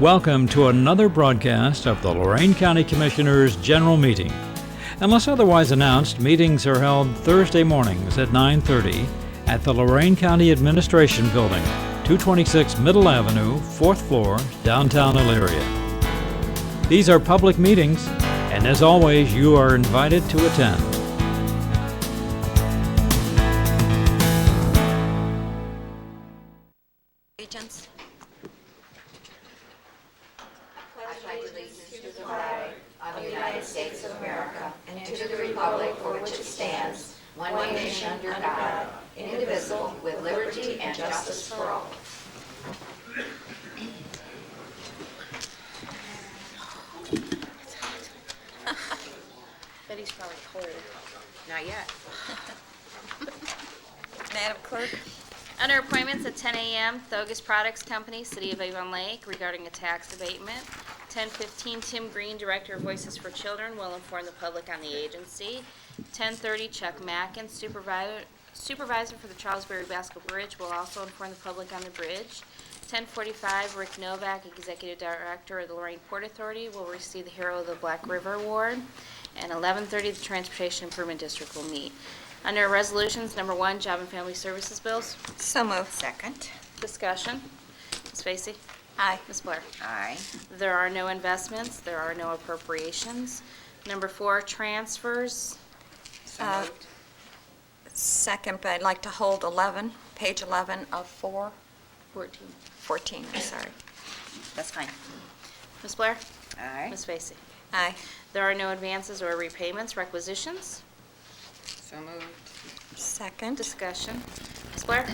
Welcome to another broadcast of the Lorain County Commissioners' General Meeting. Unless otherwise announced, meetings are held Thursday mornings at 9:30 at the Lorain County Administration Building, 226 Middle Avenue, 4th floor, downtown Elyria. These are public meetings, and as always, you are invited to attend. Regents. Betty's probably cold. Not yet. Madam Clerk, Under appointments at 10 a.m., Thogus Products Company, City of Avon Lake, regarding a tax abatement. 10:15, Tim Green, Director of Voices for Children, will inform the public on the agency. 10:30, Chuck Mackin, Supervisor Supervisor for the Charlesbury Basco Bridge, will also inform the public on the bridge. 10:45, Rick Novak, Executive Director of the Lorraine Port Authority, will receive the Hero of the Black River Award. And 11:30, the Transportation Improvement District will meet. Under Resolutions, number one, Job and Family Services Bills, so moved. Second. Discussion. Ms. Vacy? Aye. Ms. Blair? Aye. There are no investments, there are no appropriations. Number four, transfers. Uh, Second, but I'd like to hold 11, page 11 of 4, 14. 14, I'm sorry. That's fine. Ms. Blair? Aye. Ms. Vacy? Aye, There are no advances or repayments, requisitions. So moved. second. Discussion. Ms. Blair?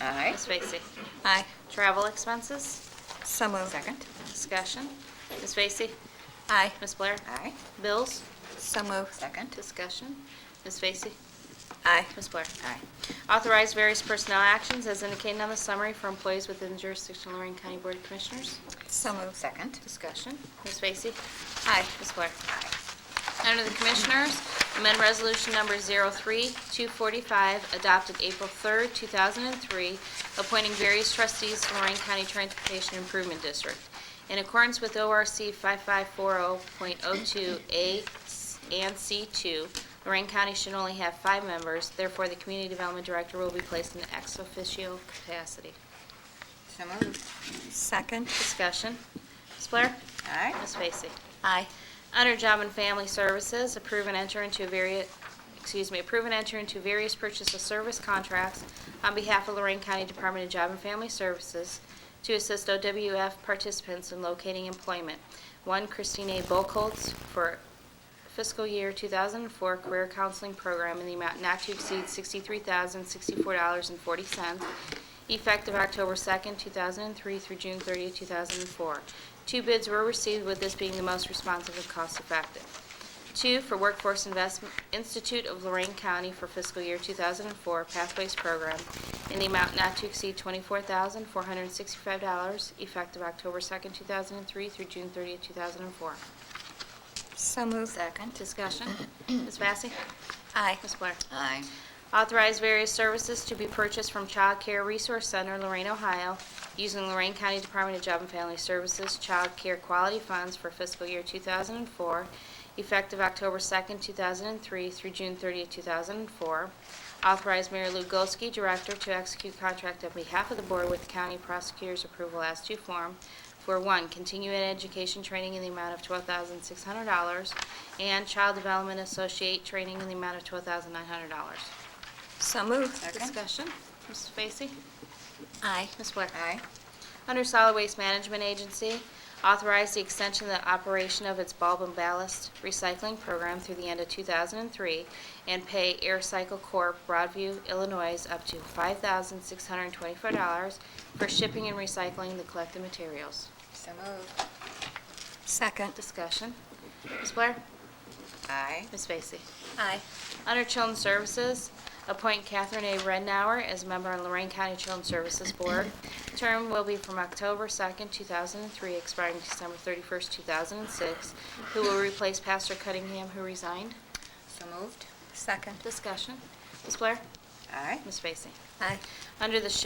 Aye. Ms. Vacy? Aye, Travel expenses. so moved. Second. Discussion. Ms. Vacy? Aye, Ms. Blair? Aye. Bills? so moved. Second. Discussion. Ms. Vacy? Aye, Ms. Blair? Aye. Authorize various personnel actions as indicated on the summary for employees within jurisdiction of Lorraine County Board of Commissioners. so moved. Second. Discussion. Ms. Vacy? Aye, Ms. Blair? Under the Commissioners, amend Resolution Number 03245, adopted April 3rd, 2003, appointing various trustees to Lorraine County Transportation Improvement District. In accordance with ORC 5540.02A and C2, Lorraine County should only have five members, therefore the Community Development Director will be placed in an ex officio capacity. So moved. second. Discussion. Ms. Blair? Aye. Ms. Vacy? Aye, Under Job and Family Services, approve and enter into various, excuse me, approve and enter into various purchase of service contracts on behalf of Lorraine County Department of Job and Family Services to assist OWF participants in locating employment. One, Christine A. Bokoltz for fiscal year 2004 Career Counseling Program in the amount not to exceed $63,064.40, effective October 2nd, 2003 through June 30th, 2004. Two bids were received, with this being the most responsive and cost-effective. Two, for Workforce Investment Institute of Lorraine County for fiscal year 2004 Pathways Program in the amount not to exceed $24,465, effective October 2nd, 2003 through June 30th, 2004. so moved. Second. Discussion. Ms. Vacy? Aye, Ms. Blair? Aye. Authorize various services to be purchased from Child Care Resource Center, Lorraine, Ohio, using Lorraine County Department of Job and Family Services Child Care Quality Funds for fiscal year 2004, effective October 2nd, 2003 through June 30th, 2004. Authorize Mary Lou Golsky, Director, to execute contract on behalf of the Board with County Prosecutor's Approval as to form for one, continuing education training in the amount of $12,600, and Child Development Associate training in the amount of $12,900. so moved. Second. Discussion, Ms. Vacy? Aye, Ms. Blair? Aye. Under Solid Waste Management Agency, authorize the extension of the operation of its bulb and ballast recycling program through the end of 2003, and pay AirCycle Corp., Broadview, Illinois, up to $5,624 for shipping and recycling the collected materials. So moved. second. Discussion, Ms. Blair? Aye. Ms. Vacy? Aye, Under Children's Services, appoint Catherine A. Rednauer as a member on Lorraine County Children's Services Board. Term will be from October 2nd, 2003, expiring December 31st, 2006, who will replace Pastor Cunningham, who resigned. So moved. second. Discussion. Ms. Blair? Aye. Ms. Vacy? Aye. Under the Sheriff's